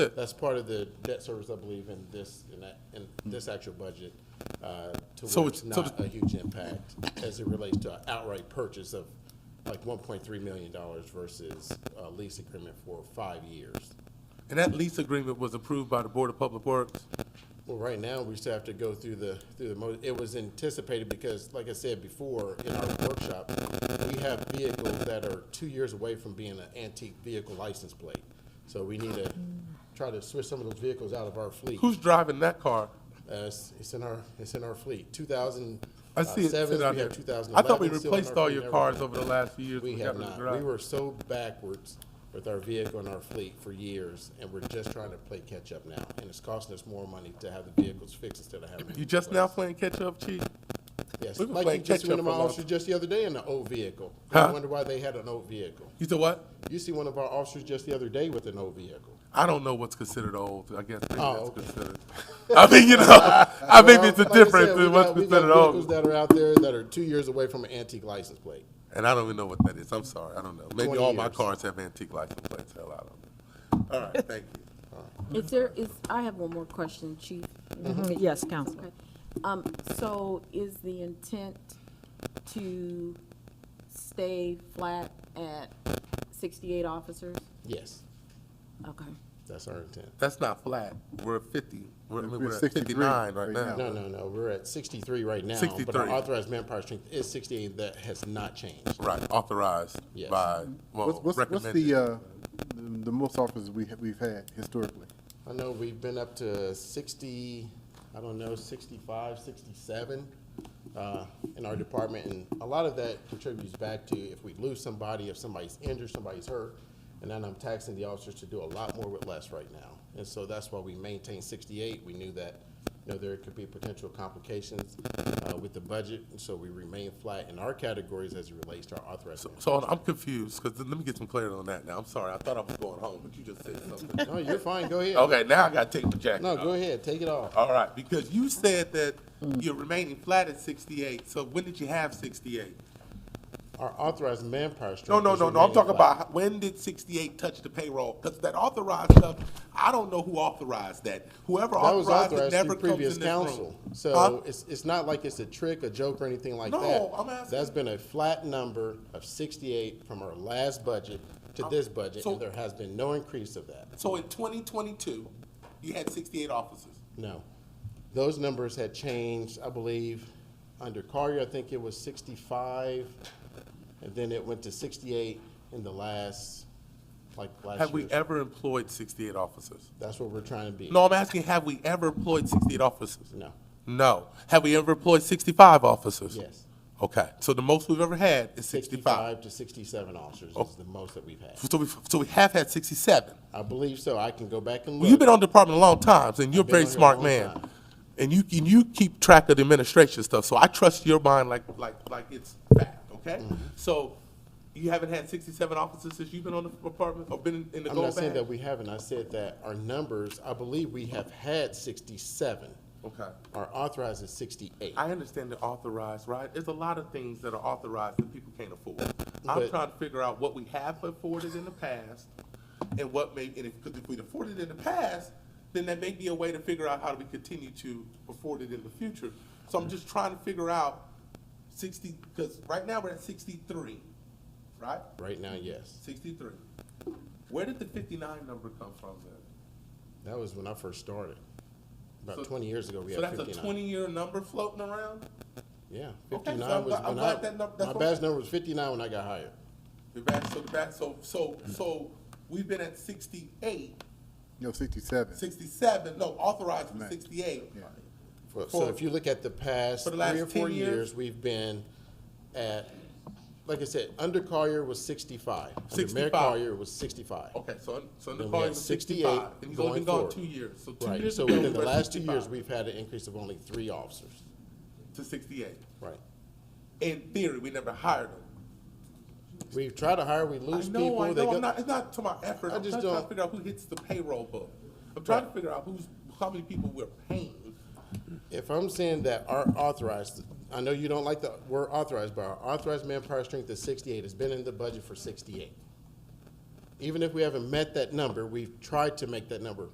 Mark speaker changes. Speaker 1: That's part of the debt service, I believe, in this, in that, in this actual budget, uh, to
Speaker 2: So
Speaker 1: where it's
Speaker 2: it's- so
Speaker 1: not a huge impact as it relates to outright purchase of like one point three million dollars versus a lease agreement for five years.
Speaker 2: And that lease agreement was approved by the Board of Public Works.
Speaker 1: Well, right now, we still have to go through the, through the, mo- it was anticipated because, like I said before, in our workshop, we have vehicles that are two years away from being an antique vehicle license plate. So we need to try to switch some of those vehicles out of our fleet.
Speaker 2: Who's driving that car?
Speaker 1: Uh, it's, it's in our, it's in our fleet. Two thousand
Speaker 2: I see it
Speaker 1: seven, Uh, we
Speaker 2: sit out there.
Speaker 1: have two thousand eleven.
Speaker 2: I thought we replaced all your cars over the last few years.
Speaker 1: We
Speaker 2: when
Speaker 1: have
Speaker 2: got rid of
Speaker 1: not.
Speaker 2: the
Speaker 1: We
Speaker 2: drive.
Speaker 1: were so backwards with our vehicle and our fleet for years, and we're just trying to play catch-up now. And it's costing us more money to have the vehicles fixed instead of having. them
Speaker 2: You just now
Speaker 1: replaced.
Speaker 2: playing catch-up, Chief?
Speaker 1: Yes,
Speaker 2: we were
Speaker 1: like you
Speaker 2: playing
Speaker 1: just went to
Speaker 2: catch-up
Speaker 1: my
Speaker 2: a lot.
Speaker 1: officer just the other day in an old vehicle.
Speaker 2: Huh?
Speaker 1: I wonder why they had an old vehicle.
Speaker 2: You said what?
Speaker 1: You see one of our officers just the other day with an old vehicle.
Speaker 2: I don't know what's considered old. I guess maybe that's
Speaker 1: Oh, okay.
Speaker 2: considered. I mean, you know, I think it's a
Speaker 1: Well, like I said,
Speaker 2: difference
Speaker 1: we
Speaker 2: in what's
Speaker 1: got- we got
Speaker 2: considered
Speaker 1: Vehicles
Speaker 2: old.
Speaker 1: that are out there that are two years away from an antique license plate.
Speaker 2: And I don't even know what that is. I'm sorry. I don't know. Maybe
Speaker 1: 20
Speaker 2: all my
Speaker 1: years.
Speaker 2: cars have antique license plates. Hell, I don't know. All right, thank you.
Speaker 3: Is there, is, I have one more question, Chief. Okay.
Speaker 4: Yes, Counselor.
Speaker 3: Okay. Um, so is the intent to stay flat at sixty-eight officers?
Speaker 1: Yes,
Speaker 3: Okay.
Speaker 1: that's our intent.
Speaker 2: That's not flat. We're at 50. We're, I mean,
Speaker 5: We're
Speaker 2: we're at
Speaker 5: 63
Speaker 2: 59 right
Speaker 5: right
Speaker 2: now.
Speaker 1: No, no, no, we're at sixty-three right now. But
Speaker 2: 63.
Speaker 1: our authorized manpower strength is sixty-eight, that has not changed.
Speaker 2: Right, authorized
Speaker 1: Yes.
Speaker 2: by, well,
Speaker 5: What's, what's, what's
Speaker 2: recommended.
Speaker 5: the, uh, the the most officers we, ha- we've had historically?
Speaker 1: I know we've been up to sixty, I don't know, 65, 67 uh, in our department, and a lot of that contributes back to if we lose somebody, if somebody's injured, somebody's hurt, and then I'm taxing the officers to do a lot more with less right now. And so that's why we maintain sixty-eight. We knew that, you know, there could be potential complications uh, with the budget, and so we remain flat in our categories as it relates to our authorized.
Speaker 2: So hold on, I'm confused, because let me get some clarity on that now. I'm sorry, I thought I was going home, but you just said something.
Speaker 1: No, you're fine, go ahead.
Speaker 2: Okay, now I gotta take the jacket
Speaker 1: No,
Speaker 2: off.
Speaker 1: go ahead, Mm. take it off.
Speaker 2: All right, because you said that you're remaining flat at sixty-eight, so when did you have sixty-eight?
Speaker 1: Our authorized manpower strength.
Speaker 2: No, no,
Speaker 1: is
Speaker 2: no, no, I'm
Speaker 1: remaining
Speaker 2: talking
Speaker 1: flat.
Speaker 2: about, when did sixty-eight touch the payroll? Because that authorized stuff, I don't know who authorized that. Whoever
Speaker 1: That was
Speaker 2: authorized it
Speaker 1: authorized
Speaker 2: never
Speaker 1: through
Speaker 2: comes in this
Speaker 1: previous
Speaker 2: room.
Speaker 1: council.
Speaker 2: Huh?
Speaker 1: So it's, it's not like it's a trick, a joke, or anything like
Speaker 2: No,
Speaker 1: that.
Speaker 2: I'm asking-
Speaker 1: That's been a flat number of sixty-eight from our last budget to this budget,
Speaker 2: so-
Speaker 1: and there has been no increase of that.
Speaker 2: So in twenty twenty-two, you had sixty-eight officers.
Speaker 1: No. Those numbers had changed, I believe, under Carrier, I think it was sixty-five, and then it went to sixty-eight in the last, like,
Speaker 2: Have
Speaker 1: last
Speaker 2: we
Speaker 1: year.
Speaker 2: ever employed sixty-eight officers?
Speaker 1: That's what we're trying to be.
Speaker 2: No, I'm asking, have we ever employed 68 officers?
Speaker 1: No.
Speaker 2: No. Have we ever employed 65 officers?
Speaker 1: Yes.
Speaker 2: Okay, so the most we've ever had is 65.
Speaker 1: Sixty-five to sixty-seven officers
Speaker 2: Oh.
Speaker 1: is the most that we've had.
Speaker 2: So we, so we have had 67.
Speaker 1: I believe so. I can go back and look.
Speaker 2: Well, you've been on the department a long time, and you're a
Speaker 1: I've been
Speaker 2: very
Speaker 1: on here a
Speaker 2: smart
Speaker 1: long
Speaker 2: man.
Speaker 1: time.
Speaker 2: And you, and you keep track of the administration stuff, so I trust your mind like, like, like it's fact, okay?
Speaker 1: Mm-hmm.
Speaker 2: So you haven't had 67 officers since you've been on the department or been in the
Speaker 1: I'm
Speaker 2: go
Speaker 1: not saying
Speaker 2: bag?
Speaker 1: that we haven't. I said that our numbers, I believe we have had sixty-seven.
Speaker 2: Okay.
Speaker 1: Our authorized is sixty-eight.
Speaker 2: I understand the authorized, right? There's a lot of things that are authorized that people can't afford. I'm
Speaker 1: But-
Speaker 2: trying to figure out what we have afforded in the past and what may, and if, because if we afforded in the past, then that may be a way to figure out how do we continue to afford it in the future. So I'm just trying to figure out sixty, because right now we're at sixty-three, right?
Speaker 1: Right now, yes.
Speaker 2: Sixty-three. Where did the fifty-nine number come from then?
Speaker 1: That was when I first started.
Speaker 2: So-
Speaker 1: About twenty years ago, we
Speaker 2: So
Speaker 1: had
Speaker 2: that's a
Speaker 1: fifty-nine.
Speaker 2: twenty-year number floating around?
Speaker 1: Yeah,
Speaker 2: Okay, so
Speaker 1: fifty-nine
Speaker 2: I'm
Speaker 1: was
Speaker 2: glad- I'm
Speaker 1: when
Speaker 2: glad that
Speaker 1: I,
Speaker 2: number- that's
Speaker 1: my
Speaker 2: what-
Speaker 1: badge number was fifty-nine when I got hired.
Speaker 2: The back, so the back, so, so, so, we've been at 68,
Speaker 5: No, sixty-seven.
Speaker 2: 67. no, authorized for sixty-eight.
Speaker 5: Yeah.
Speaker 1: For- So
Speaker 2: For-
Speaker 1: if you look at the past
Speaker 2: For the
Speaker 1: three
Speaker 2: last
Speaker 1: or four
Speaker 2: 10 years?
Speaker 1: years, we've been at, like I said, under Collier was sixty-five. Under Mayor
Speaker 2: 65.
Speaker 1: Collier was sixty-five.
Speaker 2: Okay, so, so
Speaker 1: Then we
Speaker 2: Nicole
Speaker 1: had
Speaker 2: was
Speaker 1: 68
Speaker 2: sixty-five, and he's only
Speaker 1: going
Speaker 2: been gone
Speaker 1: forward.
Speaker 2: two years, so two
Speaker 1: Right,
Speaker 2: years
Speaker 1: so
Speaker 2: ago, we
Speaker 1: within the
Speaker 2: were at
Speaker 1: last two years,
Speaker 2: 65
Speaker 1: we've had an increase of only three officers.
Speaker 2: to sixty-eight.
Speaker 1: Right.
Speaker 2: In theory, we never hired him.
Speaker 1: We try to hire, we
Speaker 2: I
Speaker 1: lose
Speaker 2: know, I
Speaker 1: people, they
Speaker 2: know,
Speaker 1: go.
Speaker 2: I'm not, it's not to my effort,
Speaker 1: I
Speaker 2: I'm
Speaker 1: just
Speaker 2: just trying to
Speaker 1: don't-
Speaker 2: figure out who hits the payroll book. I'm trying to figure out who's, how many people we're paying.
Speaker 1: If I'm saying that our authorized, I know you don't like the word authorized, but our authorized manpower strength is sixty-eight, it's been in the budget for sixty-eight. Even if we haven't met that number, we've tried to make that number